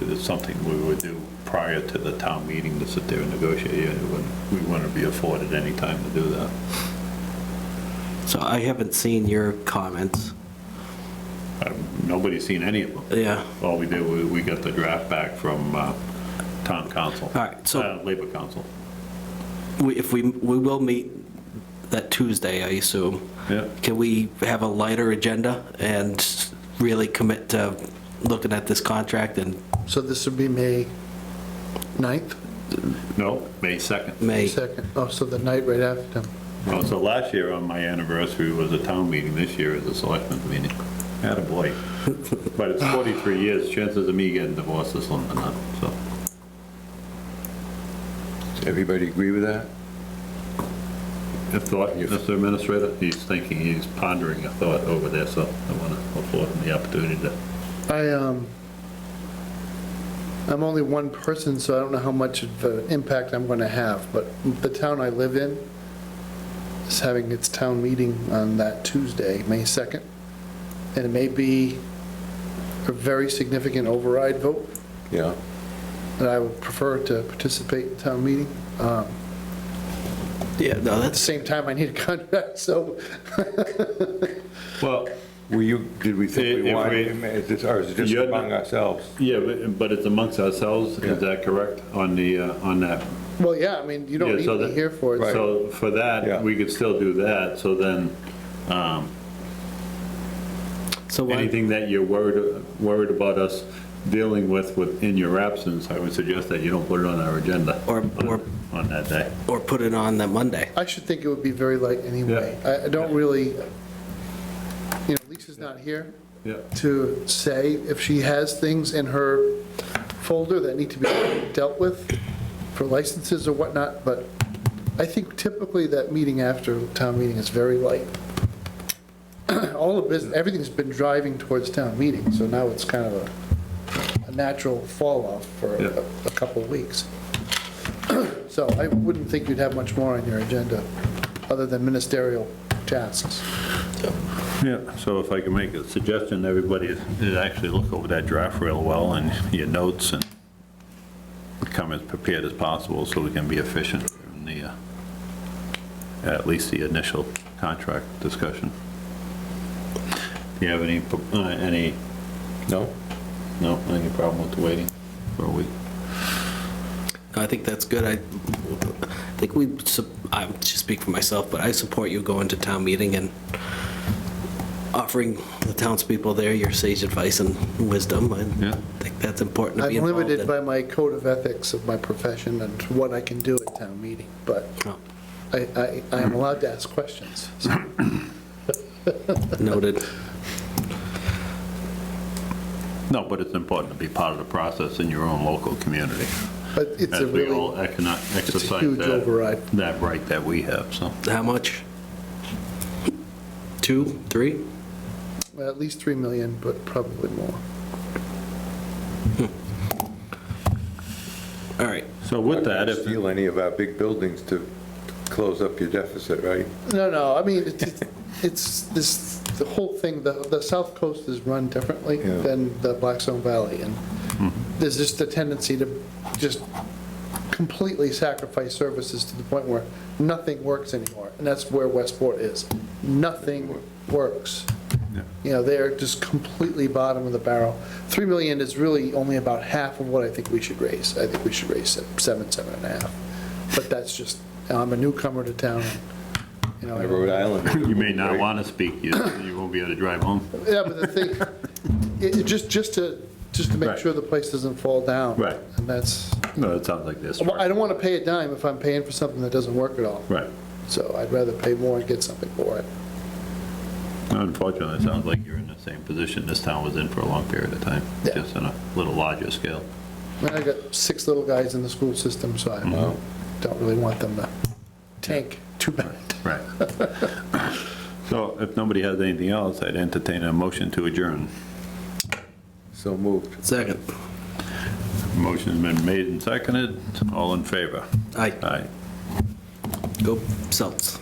It's something we would do prior to the town meeting to sit there and negotiate. It wouldn't- We wouldn't be afforded any time to do that. So I haven't seen your comments. Nobody's seen any of them. Yeah. All we did, was we got the draft back from uh, town council. All right, so- Uh, Labor council. We- If we, we will meet that Tuesday, I assume. Yeah. Can we have a lighter agenda and really commit to looking at this contract in So this would be May 9th? No, May 2nd. May? Second, oh, so the night right after. Oh, So last year on my anniversary was a town meeting, this year is a selectmen's meeting. Attaboy. But it's 43 years, chances of me getting divorced is slim to none, so. Everybody agree with that? A thought, Mr. Administrator, he's thinking, he's pondering a thought over there, so I want to afford him the opportunity to. I, um, I'm only one person, so I don't know how much of an impact I'm going to have, but the town I live in is having its town meeting on that Tuesday, May 2nd, and it may be a very significant override vote, Yeah. and I would prefer to participate in town meeting. Um, Yeah, no, At the that's, same time, I need a contract, so Well, Were you, did we think we If wanted, we- him? Is this- or is it just You're not- among ourselves? yeah, but- but it's amongst ourselves, Yeah. is that correct, on the, uh, on that? Well, yeah, I mean, you don't Yeah, need so me that- here for it. so- So for Yeah. that, we could still do that, so then so why, anything that you're worried, worried about us dealing with within your absence, I would suggest that you don't put it on our agenda. Or- or- On that day. or put it on that Monday? I should think it would be very light anyway. I, I don't really, you know, Lisa's not here Yeah. to say if she has things in her folder that need to be dealt with for licenses or whatnot, but I think typically that meeting after town meeting is very light. All of business, everything's been driving towards town meeting, so now it's kind of a, a natural fall off for Yeah. a a couple of weeks. So I wouldn't think you'd have much more on your agenda, other than ministerial tasks. Yeah, so if I can make a suggestion, everybody is- is actually look over that draft real well and your notes and come as prepared as possible so we can be efficient in the, uh, at least the initial contract discussion. Do you have any, uh, any, No? no, any problem with waiting for a week? I think that's good. I I think we, su- I just speak for myself, but I support you going to town meeting and offering the townspeople there your sage advice and wisdom. I Yeah. think that's important to I'm be involved limited in. by my code of ethics of my profession and what I can do at town meeting, but Oh, I, I, I am allowed to ask questions. So Noted. No, but it's important to be part of the process in your own local community. But it's a As we all really, econo- it's a exercise huge that, override. that right that we have, so. How much? Two, three? Well, at least 3 million, but probably more. All right. So with that, if, Steal any of our big buildings to close up your deficit, right? No, no, I mean, it's- it's, it's this, the whole thing, the, the South Coast is run differently Yeah. than the Blackstone Valley, and Hmm. there's just a tendency to just completely sacrifice services to the point where nothing works anymore, and that's where Westport is. Nothing works. You know, they're just completely bottom of the barrel. 3 million is really only about half of what I think we should raise. I think we should raise it seven, seven and a half. But that's just, I'm a newcomer to town, you know. I- In Rhode Island. you may not want to speak, you, you won't be able to drive home. Yeah, but the thing, it, it just, just to, just to make Right. sure the place doesn't fall down. Right. And that's, No, it sounds like this. well, I don't want to pay a dime if I'm paying for something that doesn't work at all. Right. So I'd rather pay more and get something for it. Unfortunately, it sounds like you're in the same position this town was in for a long period of time, Yeah. just on a little larger scale. And I got six little guys in the school system, so I Mm-hmm. don't really want them to tank too bad. Right. So if nobody has anything else, I'd entertain a motion to adjourn. So moved. Second. Motion's been made and seconded. All in favor? Aye. Aye. Go Celts.